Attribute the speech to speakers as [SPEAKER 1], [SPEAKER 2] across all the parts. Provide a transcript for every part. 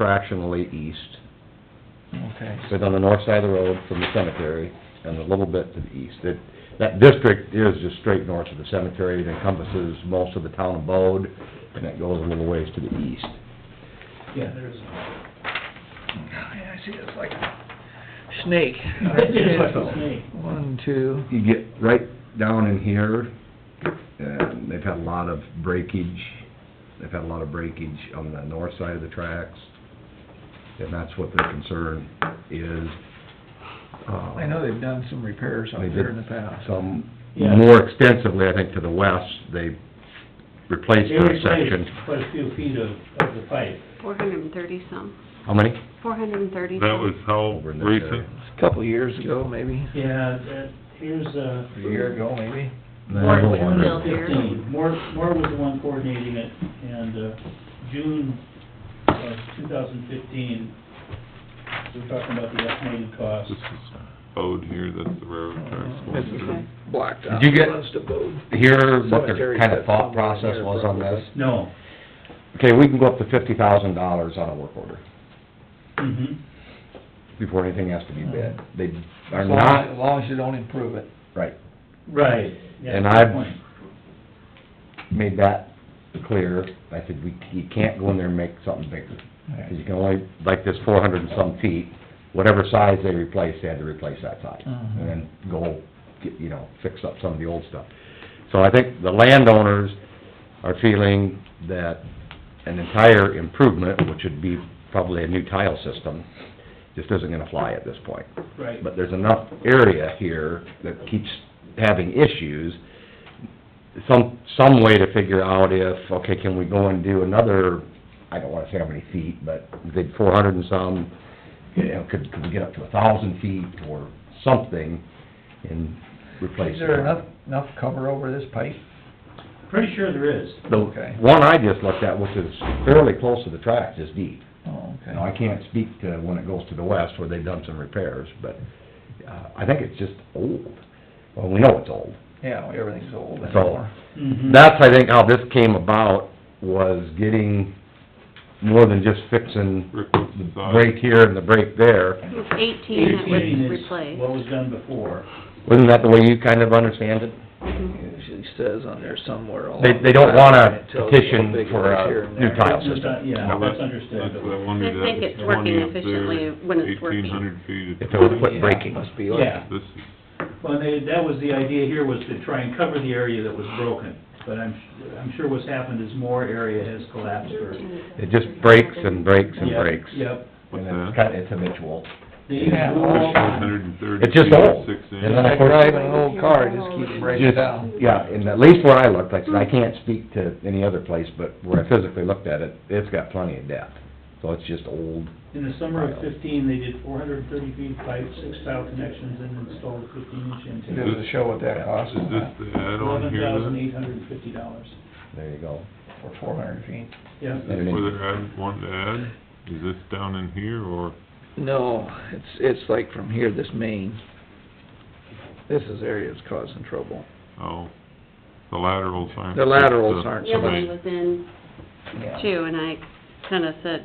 [SPEAKER 1] fractionally east,
[SPEAKER 2] Okay.
[SPEAKER 1] but on the north side of the road from the cemetery, and a little bit to the east. That, that district is just straight north of the cemetery, it encompasses most of the town of Bode, and it goes a little ways to the east.
[SPEAKER 2] Yeah, there's, I see, it's like a snake.
[SPEAKER 1] It's like a
[SPEAKER 2] One, two,
[SPEAKER 1] You get right down in here, and they've had a lot of breakage, they've had a lot of breakage on the north side of the tracks, and that's what their concern is. Um,
[SPEAKER 2] I know they've done some repairs out
[SPEAKER 1] They
[SPEAKER 2] there
[SPEAKER 1] did
[SPEAKER 2] in the past.
[SPEAKER 1] Some,
[SPEAKER 3] Yeah.
[SPEAKER 1] more extensively, I think, to the west, they replaced
[SPEAKER 3] They
[SPEAKER 1] their
[SPEAKER 3] replaced
[SPEAKER 1] section.
[SPEAKER 3] Quite a few feet of, of the pipe.
[SPEAKER 4] Four hundred and thirty some,
[SPEAKER 1] How many?
[SPEAKER 4] four hundred and thirty
[SPEAKER 5] That was
[SPEAKER 4] some.
[SPEAKER 5] how
[SPEAKER 1] Over in this area.
[SPEAKER 5] recent?
[SPEAKER 2] A Couple of years ago, maybe.
[SPEAKER 3] Yeah, that, here's, uh,
[SPEAKER 2] A year ago, maybe.
[SPEAKER 4] More
[SPEAKER 1] Another one.
[SPEAKER 4] built here.
[SPEAKER 3] fifteen. Moore, Moore was the one coordinating it, and, uh, June of two thousand fifteen, we we're talking about the estimated cost.
[SPEAKER 5] This is Bode here, that's the railroad tracks
[SPEAKER 2] This
[SPEAKER 5] going
[SPEAKER 2] is
[SPEAKER 5] through.
[SPEAKER 2] blocked out.
[SPEAKER 1] Did you get-
[SPEAKER 2] Runs to Bode.
[SPEAKER 1] Hear what their
[SPEAKER 2] Cemetery
[SPEAKER 1] kind of
[SPEAKER 2] that's
[SPEAKER 1] thought
[SPEAKER 2] somewhere
[SPEAKER 1] process
[SPEAKER 2] here,
[SPEAKER 1] was on this?
[SPEAKER 3] No.
[SPEAKER 1] Okay, we can go up to fifty thousand dollars on a work order
[SPEAKER 3] Mm-hmm.
[SPEAKER 1] before anything has to be bid. They are
[SPEAKER 2] As long as-
[SPEAKER 1] not,
[SPEAKER 2] As long as you don't improve it.
[SPEAKER 1] right,
[SPEAKER 3] Right. Yeah,
[SPEAKER 1] And
[SPEAKER 3] good
[SPEAKER 1] I've-
[SPEAKER 3] point.
[SPEAKER 1] made that clear. I said, we, you can't go in there and make something bigger. 'Cause you can only, like this four hundred and some feet, whatever size they replaced, they had to replace that size.
[SPEAKER 2] Mhm.
[SPEAKER 1] And then go, get, you know, fix up some of the old stuff. So I think the landowners are feeling that an entire improvement, which would be probably a new tile system, just isn't gonna fly at this point.
[SPEAKER 3] Right.
[SPEAKER 1] But there's enough area here that keeps having issues. Some, some way to figure out if, okay, can we go and do another, I don't wanna say how many feet, but we did four hundred and some, you know, could, could we get up to a thousand feet or something and replace it?
[SPEAKER 2] Is there enough, enough cover over this pipe?
[SPEAKER 3] Pretty sure there is.
[SPEAKER 1] The
[SPEAKER 2] Okay.
[SPEAKER 1] one I just looked at, which is fairly close to the tracks, is deep.
[SPEAKER 2] Oh,
[SPEAKER 1] Now, I
[SPEAKER 2] okay.
[SPEAKER 1] can't speak to when it goes to the west where they've done some repairs, but, uh, I think it's just old. Well, we know it's old.
[SPEAKER 2] Yeah, everything's old
[SPEAKER 1] So-
[SPEAKER 2] anymore.
[SPEAKER 3] Mhm.
[SPEAKER 1] That's, I think, how this came about, was getting more than just fixing
[SPEAKER 5] Rick
[SPEAKER 1] the
[SPEAKER 5] was the size.
[SPEAKER 1] break here and the break there.
[SPEAKER 4] It was eighteen that
[SPEAKER 3] Eighteen
[SPEAKER 4] was
[SPEAKER 3] is
[SPEAKER 4] replaced.
[SPEAKER 3] What was done before.
[SPEAKER 1] Wasn't that the way you kind of understand it?
[SPEAKER 4] Mhm.
[SPEAKER 2] Usually says on there somewhere. along
[SPEAKER 1] They, they
[SPEAKER 2] the
[SPEAKER 1] don't wanna
[SPEAKER 2] line, it tells you how
[SPEAKER 1] petition
[SPEAKER 2] big it
[SPEAKER 1] for
[SPEAKER 2] is here
[SPEAKER 1] a
[SPEAKER 2] and
[SPEAKER 1] new
[SPEAKER 2] there.
[SPEAKER 1] tile
[SPEAKER 3] It's not-
[SPEAKER 1] system.
[SPEAKER 3] Yeah,
[SPEAKER 5] Now,
[SPEAKER 3] that's
[SPEAKER 5] That's
[SPEAKER 3] understood.
[SPEAKER 5] what I wondered,
[SPEAKER 4] I think it's
[SPEAKER 5] that
[SPEAKER 4] working
[SPEAKER 5] twenty up
[SPEAKER 4] efficiently
[SPEAKER 5] there,
[SPEAKER 4] when it's working.
[SPEAKER 5] eighteen hundred feet.
[SPEAKER 1] If it would quit
[SPEAKER 2] Yeah,
[SPEAKER 1] breaking.
[SPEAKER 2] Must be like,
[SPEAKER 3] Yeah,
[SPEAKER 5] This is,
[SPEAKER 3] well, they, that was the idea here, was to try and cover the area that was broken. But I'm, I'm sure what's happened is more area has collapsed or...
[SPEAKER 1] It just breaks and breaks and
[SPEAKER 3] Yep,
[SPEAKER 1] breaks.
[SPEAKER 3] Yep.
[SPEAKER 5] what's
[SPEAKER 1] And it's
[SPEAKER 5] that?
[SPEAKER 1] kind, it's habitual.
[SPEAKER 3] The
[SPEAKER 2] Yeah.
[SPEAKER 3] wall-
[SPEAKER 5] Hundred and thirty
[SPEAKER 1] It's just
[SPEAKER 5] feet, or
[SPEAKER 1] old.
[SPEAKER 5] six
[SPEAKER 1] And then
[SPEAKER 5] inches.
[SPEAKER 1] I-
[SPEAKER 2] like driving an old car, it just keeps breaking down.
[SPEAKER 1] Yeah, and at least where I looked, like I said, I can't speak to any other place, but where I physically looked at it, it's got plenty of depth. So it's just old.
[SPEAKER 3] In the summer of fifteen, they did four hundred and thirty feet pipe, six tile connections, and installed a fifteen inch
[SPEAKER 2] It
[SPEAKER 3] intake.
[SPEAKER 2] does a show what that costs
[SPEAKER 5] Is this the add-on
[SPEAKER 3] Eleven
[SPEAKER 5] here
[SPEAKER 3] thousand
[SPEAKER 5] then?
[SPEAKER 3] eight hundred and fifty dollars.
[SPEAKER 1] There you go.
[SPEAKER 2] for four hundred feet.
[SPEAKER 3] Yeah.
[SPEAKER 5] Is this where they're adding, wanting to add? Is this down in here or?
[SPEAKER 2] No, it's, it's like from here, this main. This is area that's causing trouble.
[SPEAKER 5] Oh, the laterals aren't.
[SPEAKER 2] The laterals aren't
[SPEAKER 4] The other one
[SPEAKER 5] Right.
[SPEAKER 4] was in too, and I kinda said,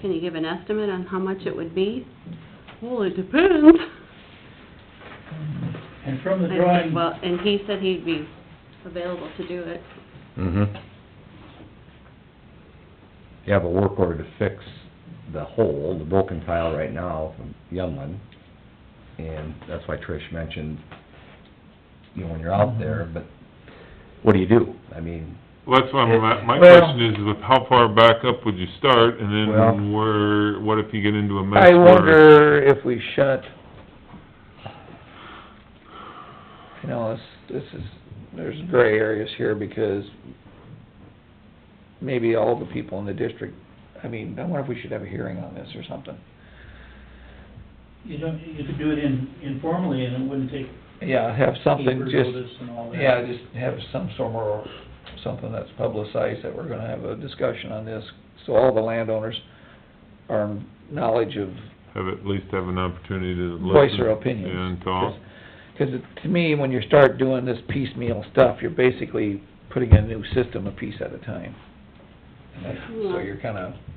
[SPEAKER 4] can you give an estimate on how much it would be? Well, it depends.
[SPEAKER 3] And from the
[SPEAKER 4] I said,
[SPEAKER 3] drawing,
[SPEAKER 4] Well, and he said he'd be available to do it.
[SPEAKER 1] Mm-hmm. You have a work order to fix the hole, the broken tile right now from Youngland, and that's why Trish mentioned, you know, when you're out there, but Mm-hmm. what do you do? I mean,
[SPEAKER 5] Well, that's why my, my
[SPEAKER 1] Well-
[SPEAKER 5] question is, is how far back up would you start and
[SPEAKER 1] Well-
[SPEAKER 5] then where, what if you get into a mess?
[SPEAKER 2] I
[SPEAKER 5] where-
[SPEAKER 2] wonder if we shut, you know, this, this is, there's gray areas here because maybe all the people in the district, I mean, I wonder if we should have a hearing on this or something.
[SPEAKER 3] you don't, you could do it in, informally, and it wouldn't take
[SPEAKER 2] Yeah, have something
[SPEAKER 3] paper
[SPEAKER 2] just,
[SPEAKER 3] notice and all that.
[SPEAKER 2] yeah, just have some sort of, something that's publicized that we're gonna have a discussion on this. So all the landowners are in knowledge of
[SPEAKER 5] Have, at least have an opportunity to listen.
[SPEAKER 2] voice their opinions.
[SPEAKER 5] And talk.
[SPEAKER 2] Because to me, when you start doing this piecemeal stuff, you're basically putting a new system a piece at a time. And that's- So
[SPEAKER 4] Yeah.
[SPEAKER 2] you're kind of